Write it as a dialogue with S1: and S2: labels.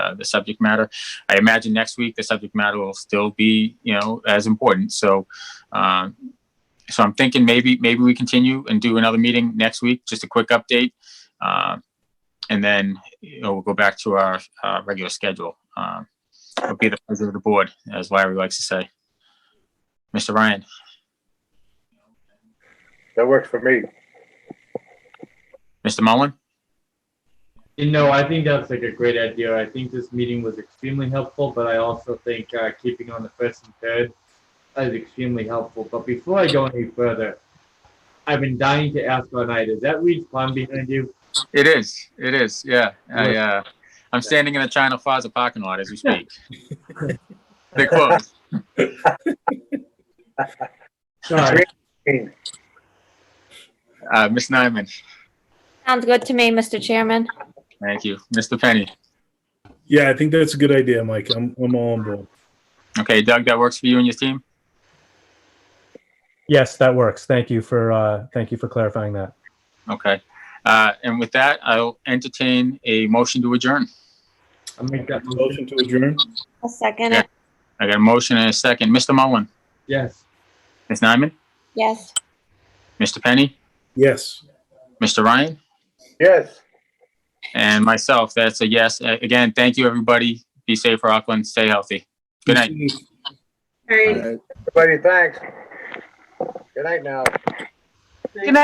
S1: uh, the subject matter. I imagine next week the subject matter will still be, you know, as important. So, um, so I'm thinking maybe maybe we continue and do another meeting next week, just a quick update, uh, and then you know we'll go back to our uh, regular schedule. Um, it'll be the pleasure of the board, as Larry likes to say. Mr. Ryan,
S2: That works for me.
S1: Mr. Mullin,
S3: You know, I think that's like a great idea. I think this meeting was extremely helpful, but I also think uh, keeping on the first and third is extremely helpful. But before I go any further, I've been dying to ask all night, is that Reed's Pond behind you?
S1: it is, it is, yeah. I, uh, I'm standing in the China Plaza parking lot as we speak. They're closed.
S3: Sorry.
S1: Uh, Ms. Nyman,
S4: Sounds good to me, Mr. Chairman.
S1: thank you. Mr. Penny,
S5: Yeah, I think that's a good idea, Mike. I'm, I'm all on board.
S1: okay, Doug, that works for you and your team?
S6: Yes, that works. Thank you for, uh, thank you for clarifying that.
S1: Okay. Uh, and with that, I'll entertain a motion to adjourn.
S3: I'll make that
S5: Motion
S3: motion.
S5: to adjourn?
S4: A second,
S1: Yeah. I got a motion and a second. Mr. Mullin,
S3: Yes.
S1: Ms. Nyman,
S4: yes.
S1: Mr. Penny,
S5: Yes.
S1: Mr. Ryan,
S2: Yes.
S1: and myself. That's a yes. A- Again, thank you, everybody. Be safe, Rockland. Stay healthy. Good night.
S7: All right.
S2: Everybody, thanks. Good night now.